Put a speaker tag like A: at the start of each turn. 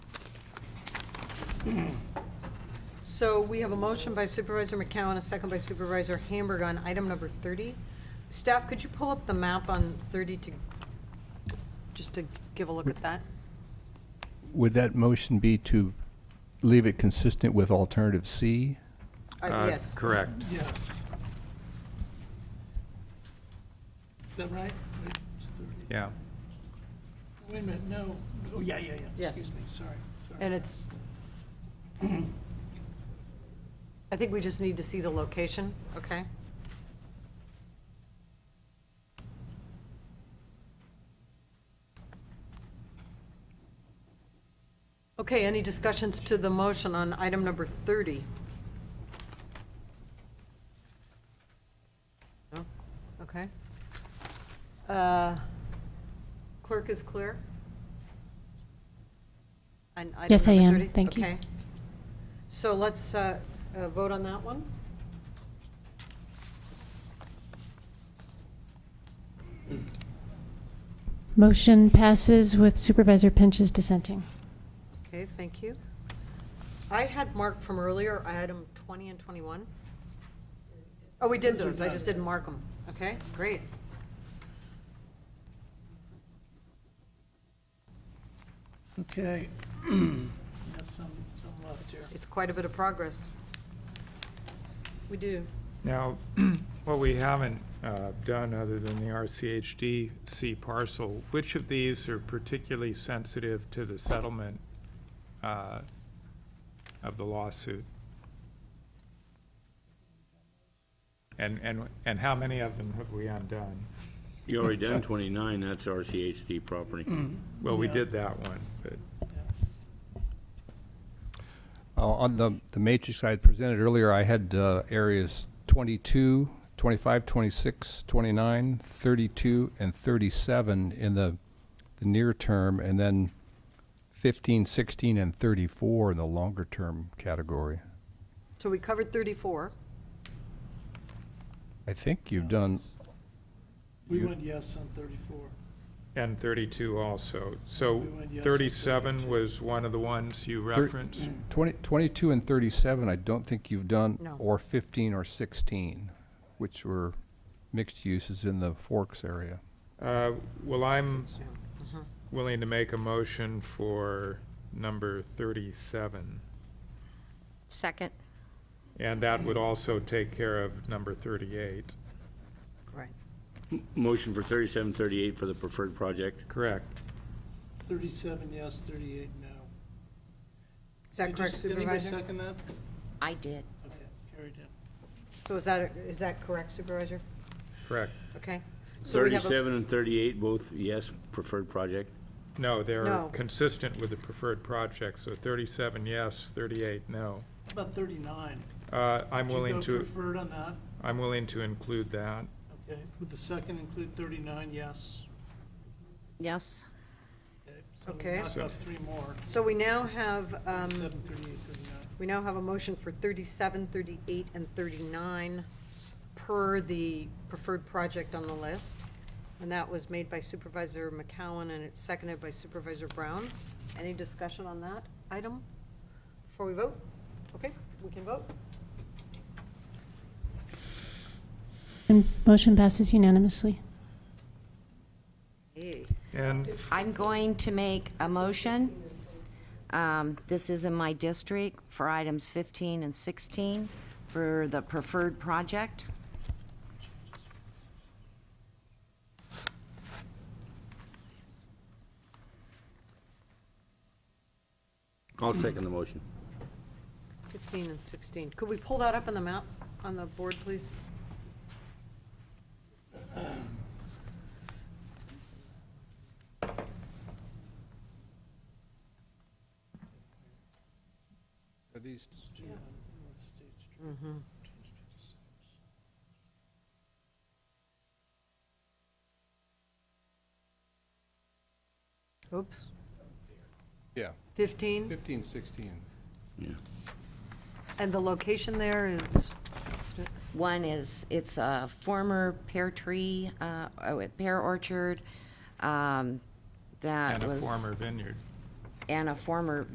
A: So we have a motion by Supervisor McCowen, a second by Supervisor Hamburg on item number 30. Staff, could you pull up the map on 30 to, just to give a look at that?
B: Would that motion be to leave it consistent with alternative C?
A: Uh,
C: Uh,
A: Yes,
C: Correct.
D: Yes. Is that right? Wait, it's 30.
C: Yeah.
D: Wait a minute, no, oh, yeah, yeah, yeah,
A: Yes.
D: excuse me, sorry. sorry.
A: and it's, I think we just need to see the location, okay? Okay, any discussions to the motion on item number 30? No? Okay. Uh, Clerk is clear? On item
E: Yes, I
A: number
E: am.
A: 30?
E: Thank you.
A: Okay. So let's uh, uh, vote on that one.
E: Motion passes with Supervisor Pinches dissenting.
A: Okay, thank you. I had marked from earlier, item 20 and 21. Oh, we did those, I just didn't mark them. Okay, great.
D: Okay. Got some, some left here.
A: It's quite a bit of progress. We do.
C: Now, what we haven't uh, done, other than the RCHD C parcel, which of these are particularly sensitive to the settlement uh, of the lawsuit? And, and, and how many of them have we undone?
F: You already done 29, that's RCHD property.
C: Well, we
D: Yeah.
C: did that one, but,
B: Uh, On the, the matrix I had presented earlier, I had uh, areas 22, 25, 26, 29, 32, and 37 in the, the near term, and then 15, 16, and 34 in the longer term category.
A: So we covered 34.
B: I think you've done,
D: We
B: You-
D: went yes on thirty-four.
C: and 32 also. So
D: We went yes on
C: 37
D: 32.
C: was one of the ones you referenced?
B: 20, 22 and 37, I don't think you've done,
A: No.
B: or 15 or 16, which were mixed uses in the Forks area.
C: Uh, Well, I'm
A: Yeah. Mhm.
C: willing to make a motion for number 37.
G: Second.
C: And that would also take care of number 38.
A: Right.
F: Motion for 37, 38 for the preferred project.
C: Correct.
D: Thirty-seven yes, thirty-eight no.
A: Is that
D: Did you
A: correct,
D: s- did anybody
A: Supervisor?
D: second that?
G: I did.
D: Okay, carried in.
A: So is that, is that correct, Supervisor?
C: Correct.
A: Okay. So we have a-
F: 37 and 38, both yes, preferred project.
C: No, they're
A: No.
C: consistent with the preferred project, so 37 yes, 38 no.
D: How About thirty-nine.
C: Uh, I'm
D: Did you
C: willing
D: go
C: to,
D: Preferred on that,
C: I'm willing to include that.
D: okay. Would the second include thirty-nine yes?
G: Yes.
D: So we
A: Okay.
D: knocked
C: So-
D: off three more,
A: So we now have, um,
D: seven, thirty-eight, thirty-nine.
A: we now have a motion for 37, 38, and 39 per the preferred project on the list. And that was made by Supervisor McCowen and it's seconded by Supervisor Brown. Any discussion on that item before we vote? Okay, we can vote.
E: And motion passes unanimously.
A: Hey.
C: And
G: I'm going to make a motion. Um, This is in my district for items 15 and 16 for the preferred project.
F: I'll second the motion.
A: 15 and 16. Could we pull that up on the map, on the board, please?
B: Are these
A: Mm-hmm. Oops.
B: Yeah,
A: 15,
B: 15, 16.
A: and the location there is,
G: One is, it's a former pear tree, uh, oh, pear orchard um, that
C: and a
G: was.
C: former vineyard.
G: And a former